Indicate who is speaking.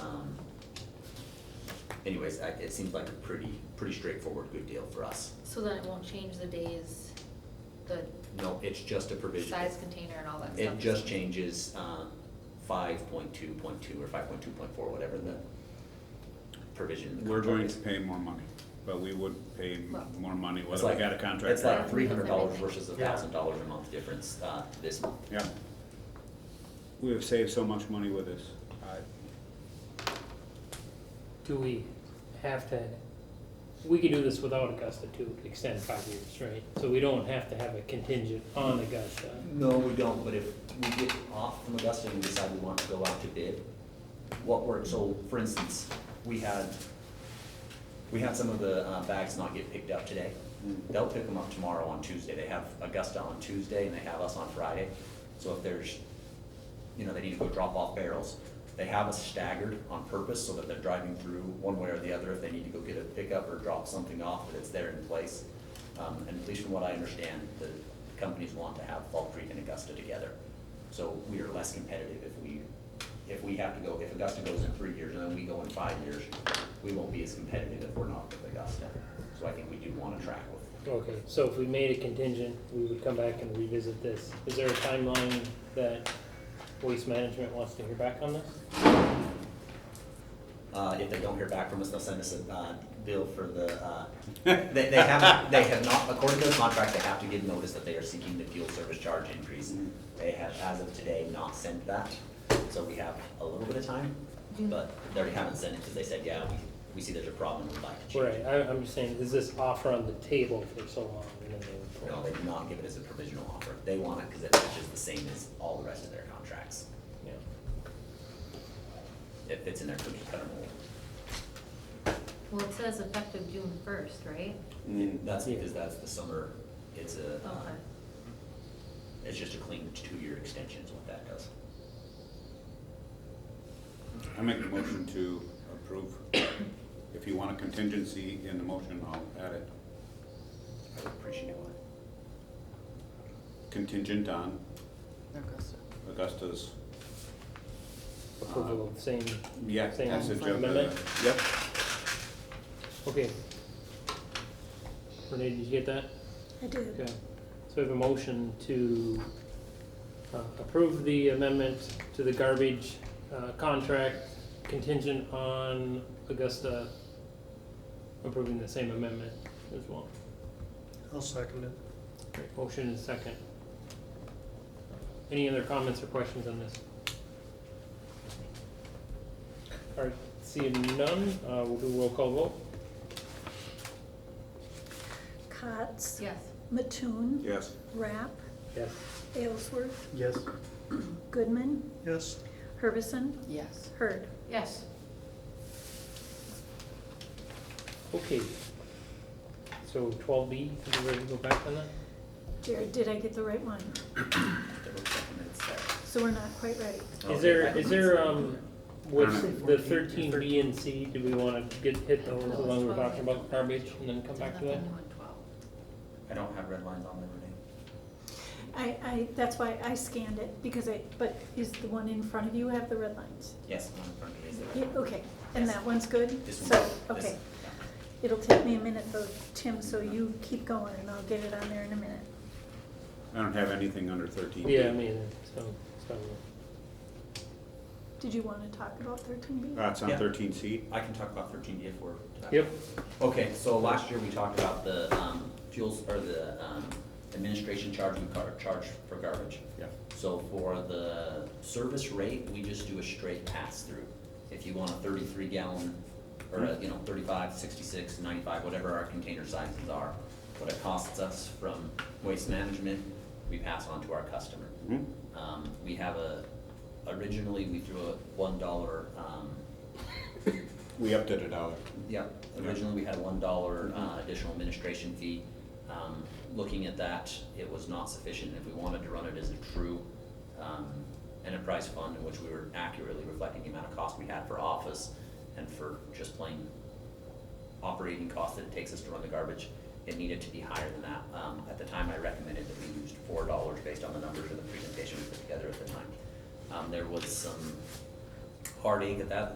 Speaker 1: Um, anyways, I, it seems like a pretty, pretty straightforward, good deal for us.
Speaker 2: So then it won't change the days, the
Speaker 1: No, it's just a provision.
Speaker 2: size container and all that stuff?
Speaker 1: It just changes, um, five point two point two or five point two point four, whatever the provision in the
Speaker 3: We're going
Speaker 1: contract is.
Speaker 3: to pay more money, but we would pay m-
Speaker 2: Well-
Speaker 3: more money
Speaker 1: It's
Speaker 3: whether we
Speaker 1: like-
Speaker 3: got a contract.
Speaker 1: It's
Speaker 3: or
Speaker 1: like
Speaker 3: not.
Speaker 1: three hundred dollars
Speaker 2: Everything.
Speaker 1: versus a
Speaker 4: Yeah.
Speaker 1: thousand dollars a month difference, uh, this month.
Speaker 3: Yeah. We have saved so much money with this. I-
Speaker 4: Do we have to, we could do this without Augusta to extend five years, right? So we don't have to have a contingent on Augusta.
Speaker 1: No, we don't, but if we get off from Augusta and we decide we want to go out to bid, what works, so for instance, we had, we had some of the uh, bags not get picked up today.
Speaker 3: Mm.
Speaker 1: They'll pick them up tomorrow on Tuesday, they have Augusta on Tuesday and they have us on Friday. So if there's, you know, they need to go drop off barrels, they have us staggered on purpose so that they're driving through one way or the other if they need to go get a pickup or drop something off, that it's there in place. Um, and at least from what I understand, the companies want to have Fall Creek and Augusta together. So we are less competitive if we, if we have to go, if Augusta goes in three years and then we go in five years, we won't be as competitive if we're not with Augusta. So I think we do wanna track with,
Speaker 4: Okay, so if we made a contingent, we would come back and revisit this. Is there a timeline that waste management wants to hear back on this?
Speaker 1: uh, if they don't hear back from us, they'll send us a, uh, bill for the, uh, they, they haven't, they have not, according to the contract, they have to give notice that they are seeking the fuel service charge increase. They have, as of today, not sent that, so we have a little bit of time, but they already haven't sent it because they said, yeah, we, we see there's a problem, we'd like to change it.
Speaker 4: Right, I, I'm just saying, is this offer on the table for so long and then they would
Speaker 1: No,
Speaker 4: pull
Speaker 1: they
Speaker 4: it?
Speaker 1: do not give it as a provisional offer. They want it because it matches the same as all the rest of their contracts.
Speaker 4: Yeah.
Speaker 1: It fits in their cookie cutter mold.
Speaker 2: Well, it says effective June first, right?
Speaker 3: Mm.
Speaker 1: That's because that's the summer, it's a,
Speaker 5: Oh,
Speaker 1: uh,
Speaker 2: Okay.
Speaker 1: it's just a clean two-year extension is what that does.
Speaker 3: I make a motion to approve. If you want a contingency in the motion, I'll add it.
Speaker 1: I would appreciate it.
Speaker 3: Contingent on
Speaker 6: Augusta.
Speaker 3: Augusta's,
Speaker 4: Approval of same,
Speaker 3: yeah,
Speaker 4: Same
Speaker 3: passage of the,
Speaker 4: amendment?
Speaker 3: yep.
Speaker 4: okay. Renee, did you get that?
Speaker 5: I did.
Speaker 4: Okay, so we have a motion to uh, approve the amendment to the garbage uh, contract contingent on Augusta approving the same amendment as well.
Speaker 6: I'll second it.
Speaker 4: Great, Motion and second. Any other comments or questions on this? All right, seeing none, uh, we'll do roll call vote.
Speaker 5: Cots,
Speaker 2: Yes.
Speaker 5: Mattoon,
Speaker 3: Yes.
Speaker 5: Rapp,
Speaker 4: Yes.
Speaker 5: Aylesworth,
Speaker 6: Yes.
Speaker 5: Goodman,
Speaker 6: Yes.
Speaker 5: Hervison,
Speaker 6: Yes.
Speaker 5: Hurd.
Speaker 2: Yes.
Speaker 4: Okay. So twelve B, are you ready to go back on that?
Speaker 5: Jared, did I get the right one?
Speaker 1: Double check the minutes there.
Speaker 5: So we're not quite ready.
Speaker 4: Is
Speaker 1: Okay,
Speaker 4: there,
Speaker 1: I
Speaker 4: is
Speaker 1: can-
Speaker 4: there, um, with
Speaker 3: Alright.
Speaker 4: the thirteen B and C, do we wanna get, hit those along we're talking about garbage and then come back to that?
Speaker 2: Nothing new in twelve.
Speaker 1: I don't have red lines on there, Renee.
Speaker 5: I, I, that's why I scanned it, because I, but is the one in front of you have the red lines?
Speaker 1: Yes, I'm in front of you. Is there-
Speaker 5: Yeah, okay, and that one's good?
Speaker 1: This one.
Speaker 5: So,
Speaker 1: this-
Speaker 5: okay,
Speaker 1: yeah.
Speaker 5: it'll take me a minute though, Tim, so you keep going and I'll get it on there in a minute.
Speaker 3: I don't have anything under thirteen.
Speaker 4: Yeah, I mean, so, so,
Speaker 5: Did you wanna talk about thirteen B?
Speaker 3: Uh, it's on
Speaker 1: Yeah.
Speaker 3: thirteen C.
Speaker 1: I can talk about thirteen D if we're. to that.
Speaker 4: yep,
Speaker 1: Okay, so last year we talked about the um, fuels, or the um, administration charge and car, charge for garbage.
Speaker 3: Yeah.
Speaker 1: So for the service rate, we just do a straight pass-through. If you want a thirty-three gallon, or a, you know, 35, 66, 95, whatever our container sizes are, what it costs us from waste management, we pass on to our customer.
Speaker 3: Mhm.
Speaker 1: Um, we have a, originally, we threw a one dollar, um,
Speaker 3: We upped it a dollar.
Speaker 1: yeah, originally we had one dollar uh, additional administration fee. Um, Looking at that, it was not sufficient, if we wanted to run it as a true um, enterprise fund in which we were accurately reflecting the amount of cost we had for office and for just plain operating cost that it takes us to run the garbage, it needed to be higher than that. Um, At the time, I recommended that we used four dollars based on the numbers in the presentation we put together at the time. Um, There was some heartache at that,